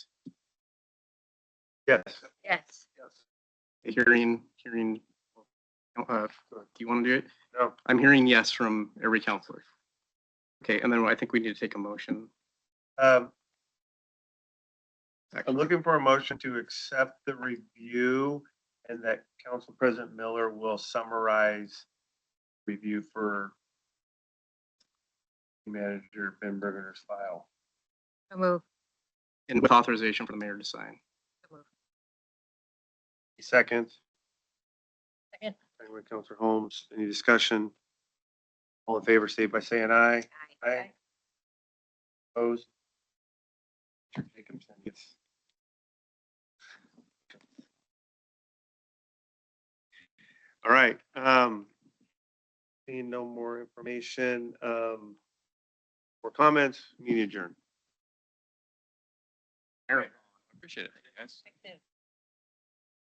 Yes. Yes. Hearing, hearing, uh, do you want to do it? No. I'm hearing yes from every counselor. Okay, and then I think we need to take a motion. Um, I'm Actually, looking for a motion to accept the review and that Council President Miller will summarize review for manager Ben Berger's file. So move. And with authorization for the mayor to sign. Second. Second Second. by Counselor Holmes. Any discussion? All in favor, state by saying aye. Aye. Opposed? Mr. Jacobson, yes. All right, um, seeing no more information, um, or comments, meeting adjourned. All right. Appreciate it, guys.